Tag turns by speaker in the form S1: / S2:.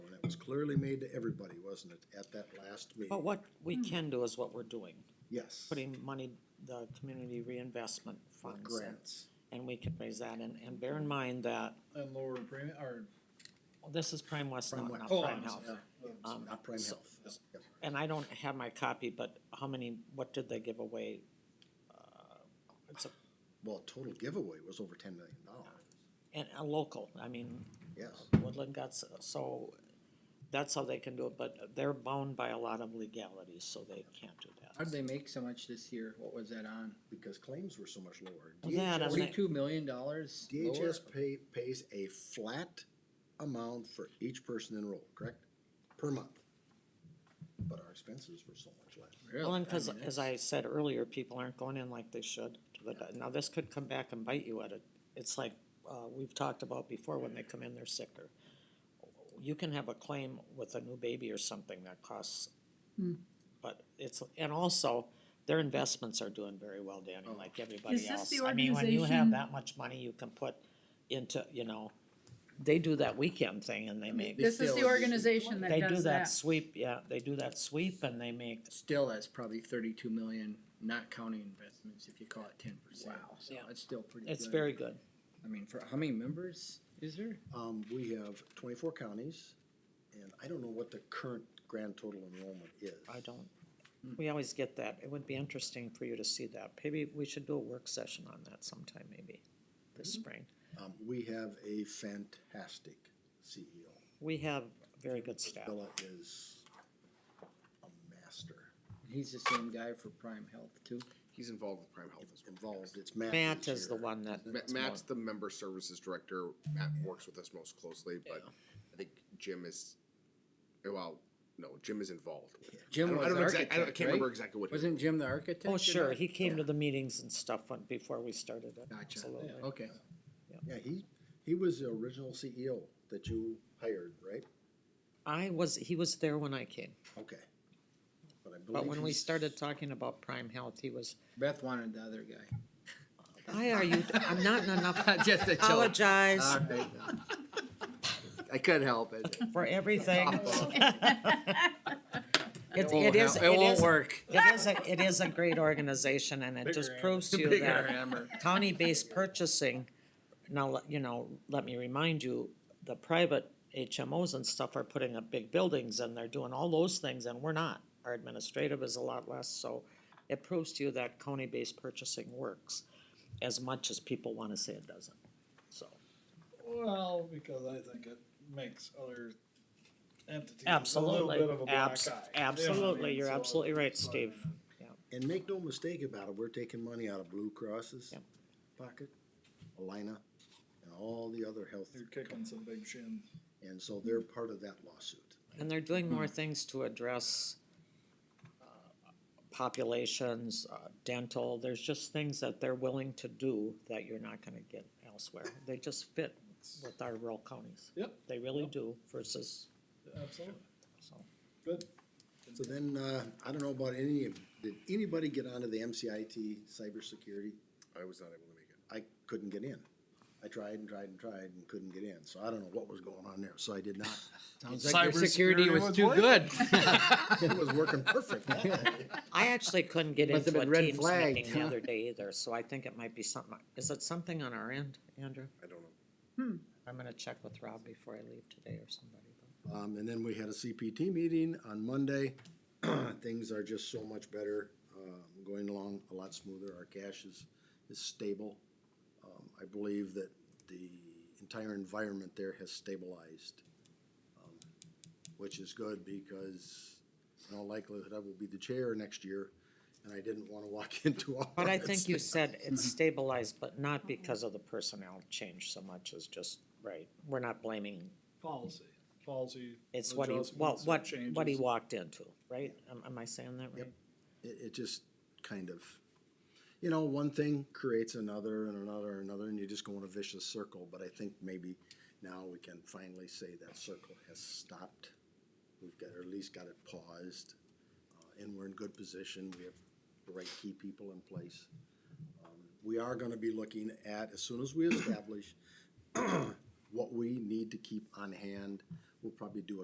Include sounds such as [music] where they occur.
S1: was clearly made to everybody, wasn't it, at that last
S2: But
S1: meeting?
S2: Oh, what we can do is what we're doing,
S1: Yes,
S2: putting money, the community reinvestment
S1: for
S2: funds. in,
S1: grants.
S2: And we can raise that, and, and bear in mind that
S3: And lower premium, or,
S2: this is Prime West,
S1: Prime
S2: not,
S1: West.
S2: not
S3: oh,
S2: Prime
S3: I'm
S2: Health.
S3: sorry.
S2: Um,
S1: Not prime
S2: so-
S1: health. Yep.
S2: And I don't have my copy, but how many, what did they give away? Uh, It's a,
S1: Well, total giveaway was over ten million dollars,
S2: and a local, I mean,
S1: yes.
S2: Woodland got, s- so that's how they can do it, but they're bound by a lot of legalities, so they can't do that.
S3: How'd they make so much this year? What was that on?
S1: because claims were so much lower.
S2: Well, that
S1: DHS
S2: and they-
S3: Forty-two million dollars?
S1: DHS pay, pays a flat amount for each person enrolled, correct? Per month. But our expenses were so much less.
S2: Well, and cause, as I said earlier, people aren't going in like they should to the, di- now this could come back and bite you at it. It's like, uh, we've talked about before, when they come in, they're sicker. You can have a claim with a new baby or something that costs,
S4: Hmm.
S2: but it's, and also, their investments are doing very well, Danny, like everybody
S4: Is this
S2: else.
S4: the
S2: I mean, when you have
S4: organization-
S2: that much money, you can put into, you know, they do that weekend thing and they make,
S4: This is the organization that
S2: they do
S4: does
S2: that
S4: that.
S2: sweep, yeah, they do that sweep and they make
S3: Still, that's probably thirty-two million, not counting investments, if you call it ten percent. Wow. So
S2: Yeah.
S3: it's still pretty good.
S2: It's very good.
S3: I mean, for, how many members is there?
S1: Um, we have twenty-four counties, and I don't know what the current grand total enrollment is.
S2: I don't, we always get that. It would be interesting for you to see that. Maybe we should do a work session on that sometime, maybe, this spring.
S1: Um, we have a fantastic CEO.
S2: We have very good staff.
S1: Bella is a master.
S3: He's the same guy for Prime Health too.
S5: He's involved with Prime Health as well.
S1: Involved, it's Matt.
S2: Matt
S1: who's
S2: is the
S1: here.
S2: one that,
S5: Ma- Matt's the member services director. Matt works with us most closely, but I think Jim is, well, no, Jim is involved. with it. I
S3: Jim
S5: don't- I
S3: was
S5: don't
S3: the
S5: know exact- I don't- I
S3: architect,
S5: can't remember
S3: right?
S5: exactly what. he-
S3: Wasn't Jim the architect?
S2: oh,
S3: in
S2: sure,
S3: that?
S2: he came to the meetings and stuff when- before we started it.
S3: Gotcha.
S2: Absolutely.
S3: Okay.
S1: Yeah, he, he was the original CEO that you hired, right?
S2: I was, he was there when I came,
S1: Okay. But I
S2: but
S1: believe
S2: when we
S1: he's- [laughs]
S2: started talking about Prime Health, he was,
S3: Beth wanted the other
S5: [laughs]
S3: guy.
S2: I are you, I'm not in
S3: [laughs]
S2: enough,
S3: Just
S2: [laughs]
S3: a joke.
S2: apologize
S3: All right. I couldn't help it.
S2: for
S3: [laughs]
S2: everything.
S4: [laughs]
S2: It's,
S3: It won't
S2: it is,
S3: help.
S2: it
S3: won't
S2: is,
S3: work.
S2: It is a, it is a great organization and it just proves to you
S3: Bigger
S2: that
S3: hammer.
S2: county-based purchasing, now, let- you know, let me remind you, the private HMOs and stuff are putting up big buildings and they're doing all those things and we're not. Our administrative is a lot less, so it proves to you that county-based purchasing works as much as people wanna say it doesn't, so.
S6: Well, because I think it makes other entities
S2: Absolutely,
S6: a little bit of a black
S2: abs-
S6: eye. You know what I
S2: absolutely,
S6: mean?
S2: you're
S6: So
S2: absolutely right,
S6: it's like-
S2: Steve.
S1: And make no mistake about it, we're taking money out of Blue Cross's
S2: Yep.
S1: pocket, Alina, and all the other health,
S6: You're kicking some big shins.
S1: and so they're part of that lawsuit.
S2: And they're doing more things to address uh, populations, uh, dental, there's just things that they're willing to do that you're not gonna get elsewhere. They just fit with our rural counties.
S6: Yep.
S2: They really do versus,
S6: Absolutely.
S2: so.
S6: Good.
S1: So then, uh, I don't know about any, did anybody get onto the MCIT cybersecurity?
S5: I was not able to make it.
S1: I couldn't get in. I tried and tried and tried and couldn't get in, so I don't know what was going on there, so I did not. [laughs]
S3: Sounds like your security
S6: Cybersecurity
S3: was
S6: was
S3: too
S6: working.
S3: good.
S1: It was working perfect.
S2: [laughs] I actually couldn't get
S3: Must have
S2: into a
S3: been red
S2: Teams
S3: flagged,
S2: meeting the
S3: huh?
S2: other day either, so I think it might be something, is it something on our end, Andrew?
S5: I don't know.
S2: I'm gonna check with Rob before I leave today or somebody.
S1: Um, and then we had a CPT meeting on Monday. [clears throat] Things are just so much better, um, going along a lot smoother. Our cash is, is stable. Um, I believe that the entire environment there has stabilized, um, which is good because in all likelihood, I will be the chair next year, and I didn't want to walk [laughs] into office.
S2: But I think you said it's stabilized, but not because of the personnel change so much as just, right, we're not blaming,
S6: Policy, policy.
S2: it's what he, well,
S6: adjustments or
S2: what, what he
S6: changes.
S2: walked into, right? Am, am I saying that right?
S1: It, it just kind of, you know, one thing creates another and another and another, and you just go in a vicious circle. But I think maybe now we can finally say that circle has stopped. We've got, or at least got it paused, uh, and we're in good position. We have the right key people in place. Um, We are gonna be looking at, as soon [clears throat] as we establish what we need to keep on hand, we'll probably do a